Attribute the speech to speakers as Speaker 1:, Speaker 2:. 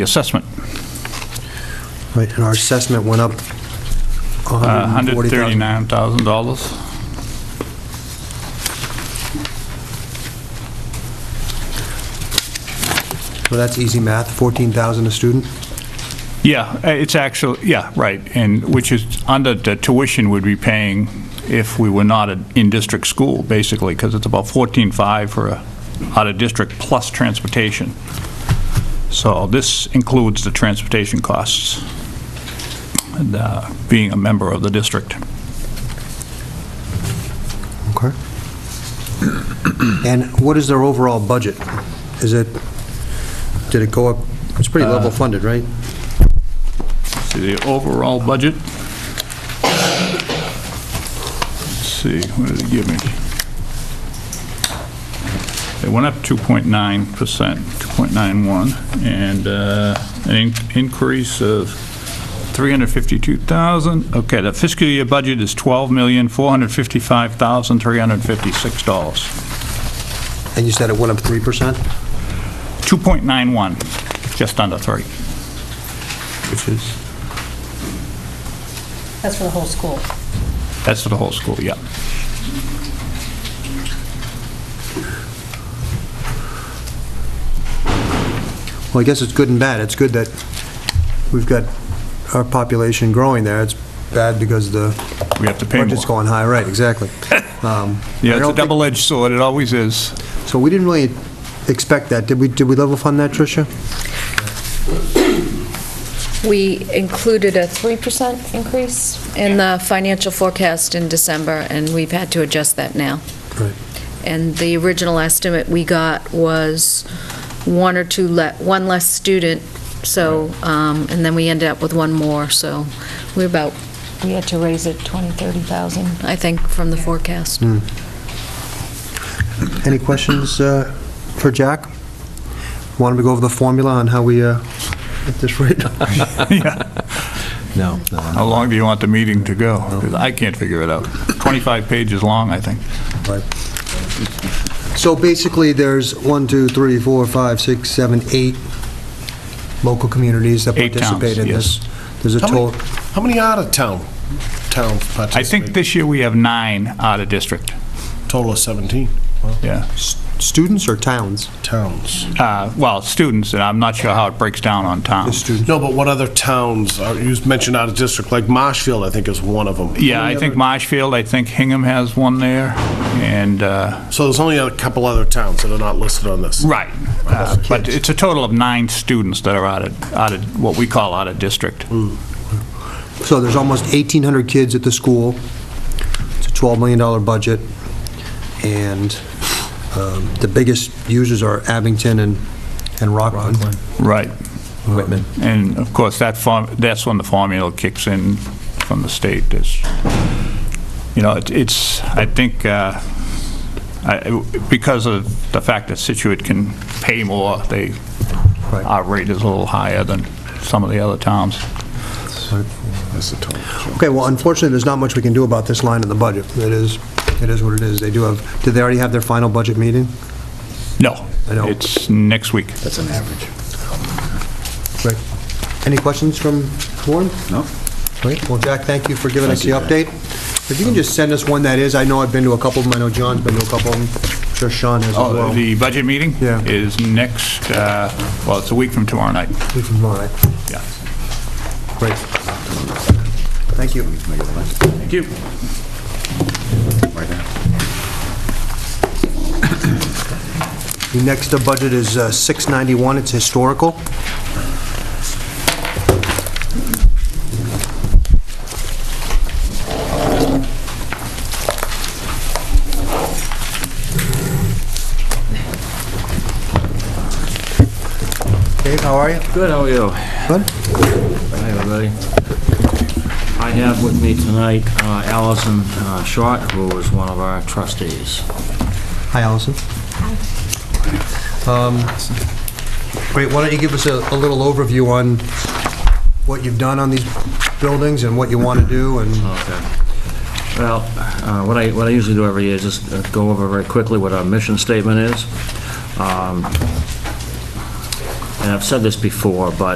Speaker 1: assessment,
Speaker 2: Right, and our assessment went up
Speaker 1: uh,
Speaker 2: Mm-hmm. $140,000.
Speaker 1: $139,000.
Speaker 2: Well, that's easy math, 14,000 a student.
Speaker 1: Yeah, uh, it's actually, yeah, right, and which is under the tuition we'd be paying if we were not a- in district school, basically, because it's about 14.5 for a out-of-district plus transportation. So this includes the transportation costs, and uh, being a member of the district.
Speaker 2: Okay. And what is their overall budget? Is it, did it go up, Uh, it's pretty level funded, right?
Speaker 1: See the overall budget. Let's see, what did they give me? They went up 2.9%, 2.91, and uh, an in- increase of 352,000. Okay, the fiscal year budget is $12,455,356.
Speaker 2: And you said it went up 3%?
Speaker 1: 2.91, just under 3, which is,
Speaker 3: That's for the whole school.
Speaker 1: that's for the whole school, yeah.
Speaker 2: Well, I guess it's good and bad. It's good that we've got our population growing there. It's bad because the
Speaker 1: We have to pay more.
Speaker 2: budget's going high, right, exactly. Um, I
Speaker 1: Yeah, it's
Speaker 2: don't
Speaker 1: a
Speaker 2: think-
Speaker 1: double-edged sword, it always is.
Speaker 2: So we didn't really expect that. Did we, did we level fund that, Tricia?
Speaker 4: We included a 3% increase in the financial forecast in December, and we've had to adjust that now.
Speaker 2: Right.
Speaker 4: And the original estimate we got was one or two, le- one less student, so, um, and then we ended up with one more, so we're about,
Speaker 3: We had to raise it 20, 30,000.
Speaker 4: I think, from the forecast.
Speaker 2: Any questions uh, for Jack? Want him to go over the formula on how we, uh, at this rate?
Speaker 5: No. no.
Speaker 1: How long do you want the meeting to go? 'Cause I can't figure it out. 25 pages long, I think.
Speaker 2: So basically, there's one, two, three, four, five, six, seven, eight local communities that
Speaker 1: Eight towns,
Speaker 2: participate in
Speaker 1: yes.
Speaker 2: this. There's a
Speaker 5: How
Speaker 2: total,
Speaker 5: many, how many out of town, town
Speaker 1: I think
Speaker 5: participate?
Speaker 1: this year we have nine out of district,
Speaker 5: Total of 17
Speaker 1: yeah.
Speaker 2: students or towns?
Speaker 5: towns.
Speaker 1: Uh, Well, students, and I'm not sure how it breaks down on
Speaker 2: The
Speaker 1: towns.
Speaker 2: students.
Speaker 5: No, but what other towns, are you mentioned out of district, like Marshfield, I think is one of them.
Speaker 1: Yeah, I think Marshfield, I think Hingham has one there, and, uh,
Speaker 5: So there's only a couple other towns that are not listed on this.
Speaker 1: right. Uh, But it's a total of nine students that are out of, out of, what we call out of district.
Speaker 2: Hmm. So there's almost 1,800 kids at the school. It's a $12 million budget. And um, the biggest users are Abington and and Rockland.
Speaker 1: Right. And of course, that form, that's when the formula kicks in from the state. It's, you know, it- it's, I think, uh, I- because of the fact that Situate can pay more, they,
Speaker 2: Right.
Speaker 1: our rate is a little higher than some of the other towns.
Speaker 5: That's the total.
Speaker 2: Okay, well, unfortunately, there's not much we can do about this line in the budget. It is, it is what it is. They do have, did they already have their final budget meeting?
Speaker 1: No,
Speaker 2: I know.
Speaker 1: it's next week.
Speaker 2: Right. Any questions from Warren? No. Great, well, Jack, thank you for giving us the update. If you can just send us one that is, I know I've been to a couple of them, I know John's been to a couple of them, I'm sure Sean has as
Speaker 1: Oh,
Speaker 2: well.
Speaker 1: the budget meeting?
Speaker 2: Yeah.
Speaker 1: Is next, uh, well, it's a week from tomorrow night.
Speaker 2: We can- all right.
Speaker 1: Yeah.
Speaker 2: Great. Thank you.
Speaker 1: Thank you.
Speaker 2: The next uh, budget is uh, 691, it's historical. Dave, how are you?
Speaker 6: Good, how are you?
Speaker 2: Good.
Speaker 6: Hi, everybody. I have with me tonight uh, Allison uh, Short, who is one of our trustees.
Speaker 2: Hi, Allison. Um, Great, why don't you give us a a little overview on what you've done on these buildings and what you want to do and...
Speaker 6: Okay. Well, uh, what I, what I usually do every year is just uh, go over very quickly what our mission statement is. Um, And I've said this before, but